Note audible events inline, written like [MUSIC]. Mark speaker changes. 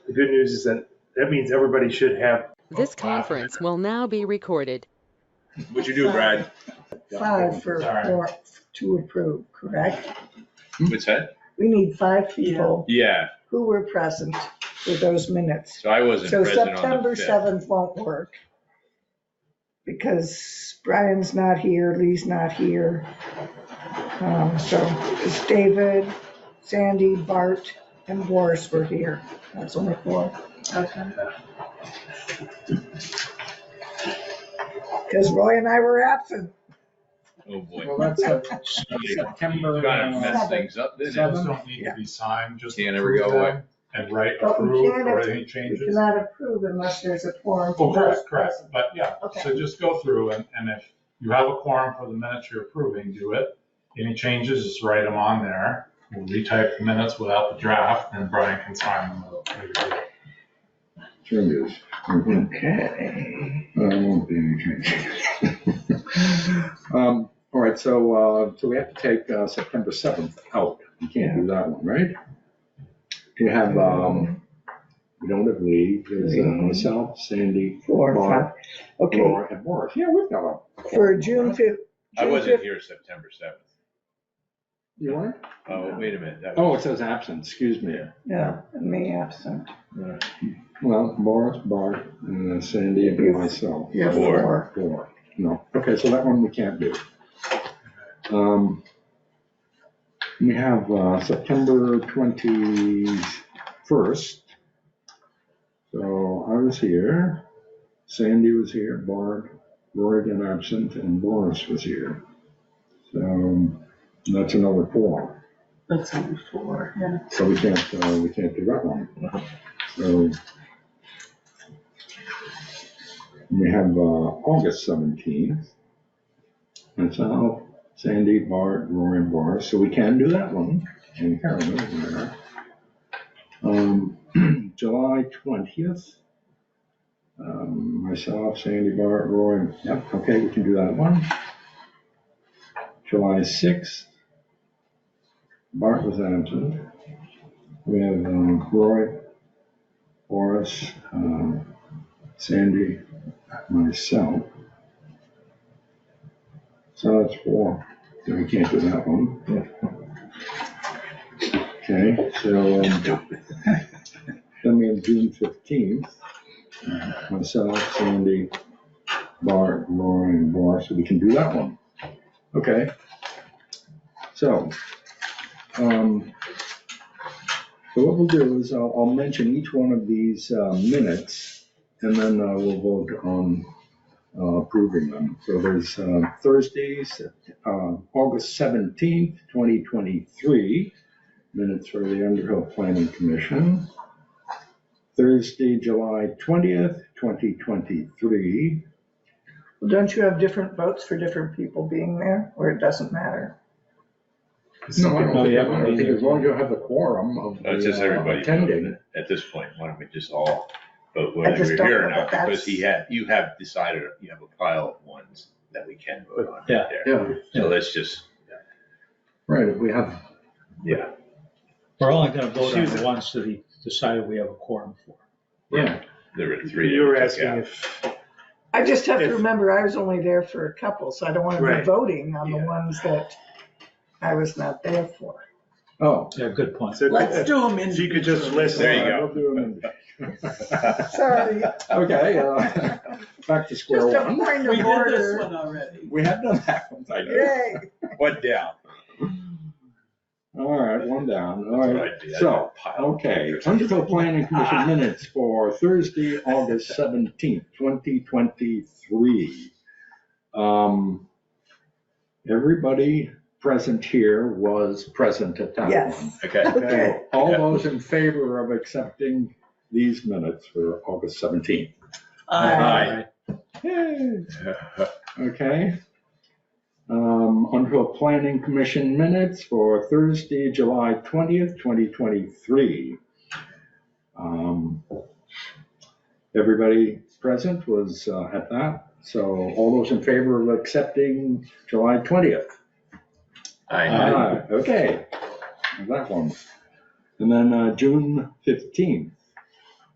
Speaker 1: the good news is that that means everybody should have.
Speaker 2: This
Speaker 1: Oh, wow.
Speaker 2: conference will now be recorded.
Speaker 1: What'd you do, Brad?
Speaker 3: Five for,
Speaker 1: All right.
Speaker 3: for, to approve, correct?
Speaker 4: What's that?
Speaker 3: We need five people
Speaker 4: Hmm? Yeah,
Speaker 3: who were present for those minutes.
Speaker 4: so I wasn't
Speaker 3: So
Speaker 4: present on
Speaker 3: September
Speaker 4: the fifth.
Speaker 3: 7th won't work because Brian's not here, Lee's not here. Um, So it's David, Sandy, Bart, and Boris were here. That's only four.
Speaker 5: Okay.
Speaker 3: Because Roy and I were absent.
Speaker 4: Oh, boy.
Speaker 5: Well, that's a
Speaker 4: You
Speaker 5: September.
Speaker 4: Gotta mess
Speaker 3: Seven.
Speaker 4: things up, didn't it?
Speaker 6: Those don't need to be signed, just.
Speaker 4: Can't ever go
Speaker 6: approve
Speaker 4: away.
Speaker 6: them And write
Speaker 3: But we
Speaker 6: approve
Speaker 3: can't
Speaker 6: or
Speaker 3: if-
Speaker 6: any
Speaker 3: We
Speaker 6: changes.
Speaker 3: cannot approve unless there's a quorum.
Speaker 6: Oh, correct,
Speaker 3: for
Speaker 6: correct,
Speaker 3: present.
Speaker 6: but yeah,
Speaker 3: Okay.
Speaker 6: so just go through and, and if you have a quorum for the minutes you're approving, do it. Any changes, just write them on there. We'll retype the minutes without the draft and Brian can sign them.
Speaker 7: Sure is. Okay. There won't be any changes. Um, All right, so, uh, so we have to take uh, September 7th out. You can't do that one, right? You have, um, you don't have Lee, there's uh, myself, Sandy,
Speaker 3: Four, five.
Speaker 7: Mark,
Speaker 3: Okay,
Speaker 7: Laura, and Morris. Yeah, we've got one.
Speaker 3: for June 5th.
Speaker 4: I wasn't here September seventh.
Speaker 7: You want?
Speaker 4: Oh, wait a minute. that
Speaker 7: Oh,
Speaker 4: was-
Speaker 7: it says absent, excuse me.
Speaker 3: Yeah, me absent.
Speaker 7: Well, Morris, Bart, and uh, Sandy, and myself.
Speaker 3: Yeah,
Speaker 4: Four.
Speaker 3: four.
Speaker 7: Four, no, okay, so that one we can't do. Um, We have uh, September twenty-first. So I was here, Sandy was here, Barb, Roy and absent, and Boris was here. So that's another four,
Speaker 5: That's only four, yeah.
Speaker 7: so we can't, uh, we can't do that one. So we have uh, August 17th. That's out. Sandy, Bart, Rory, and Boris. So we can do that one. And Carolyn is there. Um, [CLEARS THROAT] July 20th. Um, Myself, Sandy, Bart, Rory. Yep, okay, we can do that one. July 6th. Bart was absent. We have um, Roy, Boris, um, Sandy, myself. So that's four, so we can't do that one. Okay, so, [LAUGHS] um, then we have June fifteenth, myself, Sandy, Bart, Laura, and Boris, so we can do that one. Okay. So, um, so what we'll do is I'll, I'll mention each one of these uh, minutes and then uh, we'll vote on uh, approving them. So there's uh, Thursdays, uh, August 17th, 2023, minutes for the Underhill Planning Commission. Thursday, July 20th, 2023.
Speaker 3: Well, Don't you have different votes for different people being there, or it doesn't matter?
Speaker 7: No, I
Speaker 6: No,
Speaker 7: don't
Speaker 6: you
Speaker 7: think,
Speaker 6: haven't
Speaker 7: I think
Speaker 6: either.
Speaker 7: as long as you have the quorum of
Speaker 4: Oh, It's just
Speaker 7: the, uh,
Speaker 4: everybody
Speaker 7: attending.
Speaker 4: voted. At this point, why don't we just all vote
Speaker 3: I
Speaker 4: whether
Speaker 3: just
Speaker 4: you're
Speaker 3: don't
Speaker 4: here
Speaker 3: know
Speaker 4: or not?
Speaker 3: that that's-
Speaker 4: Because he had, you have decided, you have a pile of ones that we can vote on right
Speaker 6: Yeah.
Speaker 4: there.
Speaker 7: Yeah,
Speaker 4: So let's just,
Speaker 7: right, if we have
Speaker 4: yeah,
Speaker 8: We're only gonna vote on the ones that he decided we have a quorum for.
Speaker 7: Yeah,
Speaker 4: there were three.
Speaker 1: You were
Speaker 4: that we took
Speaker 1: asking
Speaker 4: out.
Speaker 1: if,
Speaker 3: I just have to
Speaker 1: If-
Speaker 3: remember, I was only there for a couple, so I don't want to be
Speaker 1: Right.
Speaker 3: voting on the
Speaker 4: Yeah.
Speaker 3: ones that I was not there for.
Speaker 7: oh.
Speaker 8: Yeah, good point.
Speaker 1: so
Speaker 5: Let's
Speaker 1: if
Speaker 5: do them in.
Speaker 1: if you could just list.
Speaker 4: There you
Speaker 1: them.
Speaker 4: go.
Speaker 7: We'll do 'em in-
Speaker 3: Sorry,
Speaker 7: Okay, uh, [LAUGHS] back to square
Speaker 3: just a
Speaker 7: one.
Speaker 3: point
Speaker 5: We did this
Speaker 3: of order.
Speaker 5: one already.
Speaker 7: We have done that one, I guess.
Speaker 3: Yay.
Speaker 4: One down.
Speaker 7: All right, one down, all
Speaker 4: That's
Speaker 7: right.
Speaker 4: what I did. I had a Ah.
Speaker 7: So, oh.
Speaker 4: pile of
Speaker 7: okay,
Speaker 4: papers.
Speaker 7: Huntsville Planning Commission minutes for Thursday, August seventeenth, twenty twenty-three. Um, everybody present here was present at that
Speaker 3: Yes.
Speaker 7: one.
Speaker 4: Okay.
Speaker 3: Okay.
Speaker 7: So, All those in favor of accepting these minutes for August seventeenth?
Speaker 5: Uh,
Speaker 4: Aye.
Speaker 7: Yay. Okay. Um, Underhill Planning Commission minutes for Thursday, July twentieth, twenty twenty-three. Um, everybody present was uh, at that, so all those in favor of accepting July twentieth?
Speaker 4: Aye.
Speaker 7: Ah, okay, that one. And then uh, June fifteenth.